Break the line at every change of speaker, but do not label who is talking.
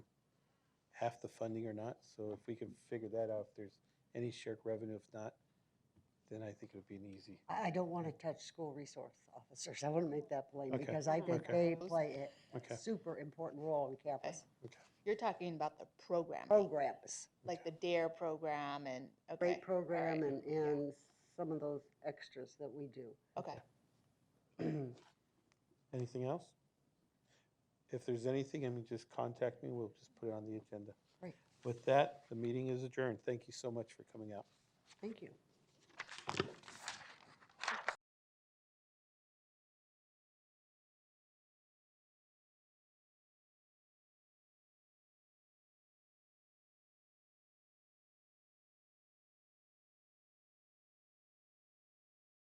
half the funding or not. So if we can figure that out, if there's any shared revenue, if not, then I think it would be an easy.
I, I don't want to touch school resource officers. I want to make that plain
Okay.
because I think
Okay.
they play
Okay.
a super important role on campus.
You're talking about the program,
Programs,
like the DARE E program and, okay.
great program and, and some of those extras that we do.
Okay,
Anything else? If there's anything, I mean, just contact me. We'll just put it on the agenda.
Great.
With that, the meeting is adjourned. Thank you so much for coming out.
Thank you.